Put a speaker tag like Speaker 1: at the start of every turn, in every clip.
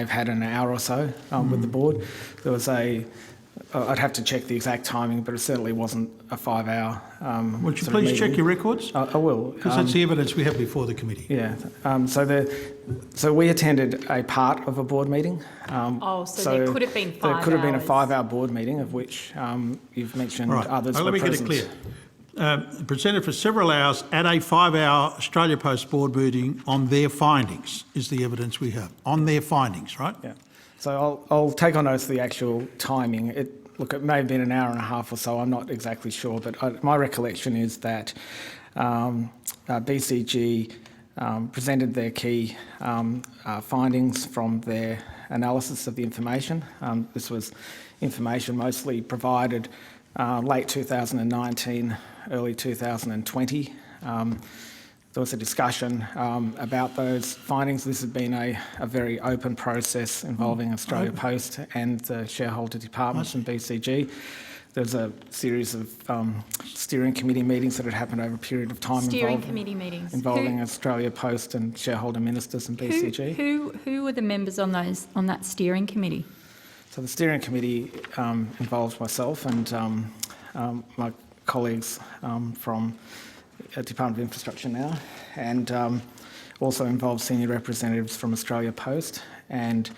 Speaker 1: I've had an hour or so um,
Speaker 2: Hmm.
Speaker 1: with the board. There was a, uh, I'd have to check the exact timing, but it certainly wasn't a five-hour. um,
Speaker 2: Would you
Speaker 1: sort of
Speaker 2: please check
Speaker 1: meeting.
Speaker 2: your records?
Speaker 1: I I will.
Speaker 2: Because
Speaker 1: um,
Speaker 2: that's the evidence we have before the committee.
Speaker 1: Yeah, um, so the, so we attended a part of a board meeting. um,
Speaker 3: Oh, so there could have been
Speaker 1: There
Speaker 3: five
Speaker 1: could have been a
Speaker 3: hours.
Speaker 1: five-hour board meeting, of which um, you've mentioned
Speaker 2: All right,
Speaker 1: others
Speaker 2: Now,
Speaker 1: were
Speaker 2: let me get it
Speaker 1: present.
Speaker 2: clear. Um, Presented for several hours at a five-hour Australia Post board meeting on their findings is the evidence we have, on their findings, right?
Speaker 1: Yeah, so I'll, I'll take on notice the actual timing. It, look, it may have been an hour and a half or so, I'm not exactly sure, but I, my recollection is that um, uh, BCG um, presented their key um, uh, findings from their analysis of the information. Um, this was information mostly provided uh, late 2019, early 2020. Um, there was a discussion um, about those findings. This has been a, a very open process
Speaker 3: Mm.
Speaker 1: involving Australia Post and the shareholder department and BCG. There's a series of um, steering committee meetings that had happened over a period of time
Speaker 3: Steering
Speaker 1: involving,
Speaker 3: committee meetings.
Speaker 1: involving
Speaker 3: Who-
Speaker 1: Australia Post and shareholder ministers and
Speaker 3: Who,
Speaker 1: BCG.
Speaker 3: who, who were the members on those, on that steering committee?
Speaker 1: So the steering committee um, involved myself and um, um, my colleagues um, from uh, Department of Infrastructure now, and um, also involved senior representatives from Australia Post and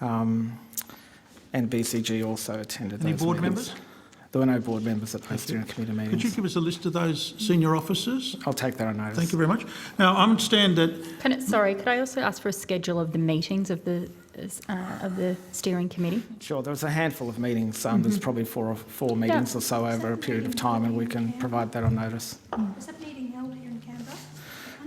Speaker 1: um, and BCG also attended.
Speaker 2: Any
Speaker 1: those
Speaker 2: board
Speaker 1: meetings.
Speaker 2: members?
Speaker 1: There were no board members at those steering committee
Speaker 2: Could you
Speaker 1: meetings.
Speaker 2: give us a list of those senior officers?
Speaker 1: I'll take that on notice.
Speaker 2: Thank you very much. Now, I understand that
Speaker 3: Can it, sorry, could I also ask for a schedule of the meetings of the, uh, of the steering committee?
Speaker 1: Sure, there was a handful of meetings. Um,
Speaker 2: Mm-hmm.
Speaker 1: There's probably four or four meetings or so over a period of time, and we can provide that on notice.
Speaker 4: Was that meeting held here in Canberra?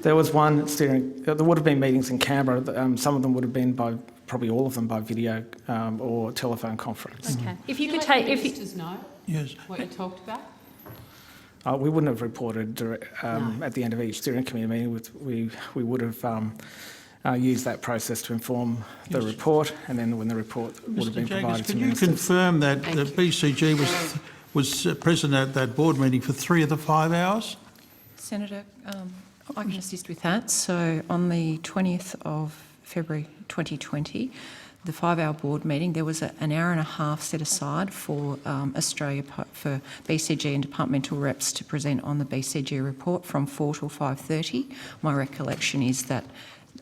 Speaker 1: There was one steering, there would have been meetings in Canberra, um, some of them would have been by, probably all of them by video um, or telephone conference.
Speaker 3: Okay. If you could take, if you,
Speaker 5: Ministers know
Speaker 2: Yes.
Speaker 5: what you talked about?
Speaker 1: Uh, we wouldn't have reported direct, um, at the end of each steering committee meeting, with, we, we would have um, uh, used that process to inform the report, and then when the report would have
Speaker 2: Mr
Speaker 1: been
Speaker 2: Jaggers,
Speaker 1: provided to
Speaker 2: can you
Speaker 1: ministers.
Speaker 2: confirm that
Speaker 5: Thank
Speaker 2: that BCG was, was uh, present at that board meeting for three of the five hours?
Speaker 6: Senator, um,
Speaker 2: Oh,
Speaker 6: I can assist with that. So on the 20th of February 2020, the five-hour board meeting, there was a- an hour and a half set aside for um, Australia, Po- for BCG and departmental reps to present on the BCG report from 4 till 5:30. My recollection is that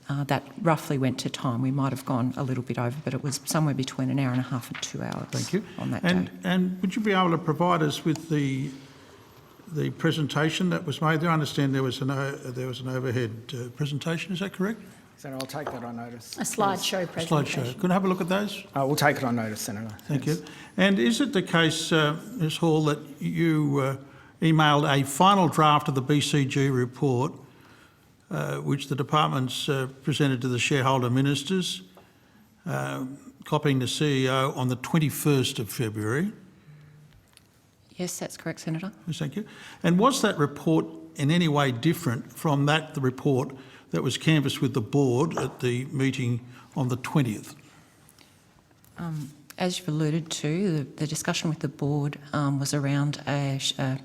Speaker 6: uh, that roughly went to time. We might have gone a little bit over, but it was somewhere between an hour and a half and two hours
Speaker 2: Thank you.
Speaker 6: on that
Speaker 2: And,
Speaker 6: day.
Speaker 2: and would you be able to provide us with the, the presentation that was made there? I understand there was an, o- there was an overhead uh, presentation, is that correct?
Speaker 1: Senator, I'll take that on notice.
Speaker 3: a slideshow presentation.
Speaker 2: Slideshow. Could I have a look at those?
Speaker 1: Uh, we'll take it on notice, Senator.
Speaker 2: Thank you. And is it the case, uh, Ms Hall, that you uh, emailed a final draft of the BCG report, uh, which the departments uh, presented to the shareholder ministers, um, copying the CEO on the 21st of February?
Speaker 6: Yes, that's correct, Senator.
Speaker 2: Yes, Oh, thank you. And was that report in any way different from that, the report that was canvassed with the board at the meeting on the 20th?
Speaker 6: As you've alluded to, the, the discussion with the board um, was around a, sh- a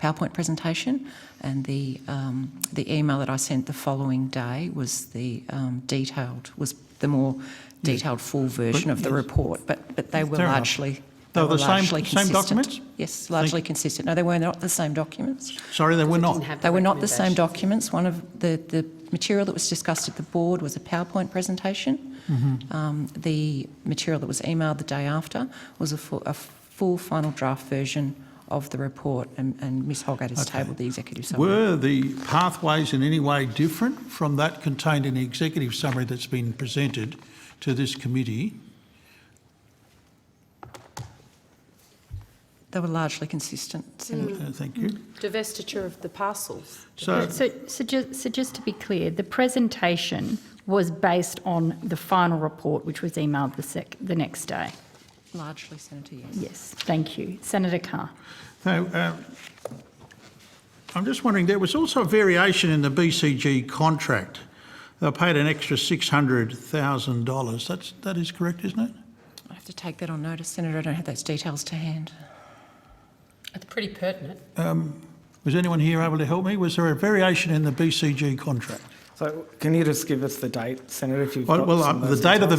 Speaker 6: PowerPoint presentation, and the um, the email that I sent the following day was the um, detailed was the more detailed full version of the report. But but they were
Speaker 2: Fair enough.
Speaker 6: largely
Speaker 2: They were
Speaker 6: were
Speaker 2: the same-
Speaker 6: largely
Speaker 2: same
Speaker 6: consistent.
Speaker 2: documents?
Speaker 6: Yes, largely consistent. No, they were not the same documents.
Speaker 2: Sorry, they were not.
Speaker 6: They were not the same documents. One of the, the material that was discussed at the board was a PowerPoint presentation. Um, the material that was emailed the day after was a full, a full final draft version of the report, and, and Ms Holgate has tabled the executive summary.
Speaker 2: Were the pathways in any way different from that contained in the executive summary that's been presented to this committee?
Speaker 6: They were largely consistent, Senator.
Speaker 2: Uh, Thank you.
Speaker 5: Divestiture of the parcels.
Speaker 2: So,
Speaker 3: So, so just, so just to be clear, the presentation was based on the final report, which was emailed the sec, the next day.
Speaker 6: Largely, Senator, yes.
Speaker 3: Yes, thank you. Senator Carr.
Speaker 2: so, uh, I'm just wondering, there was also a variation in the BCG contract. They paid an extra $600,000. That's, that is correct, isn't it?
Speaker 6: I have to take that on notice, Senator. I don't have those details to hand.
Speaker 5: It's pretty pertinent.
Speaker 2: Was anyone here able to help me? Was there a variation in the BCG contract?
Speaker 1: So can you just give us the date, Senator, if you've
Speaker 2: Well,
Speaker 1: got
Speaker 2: well,
Speaker 1: some
Speaker 2: uh,
Speaker 1: of
Speaker 2: the
Speaker 1: those
Speaker 2: date of the
Speaker 1: details?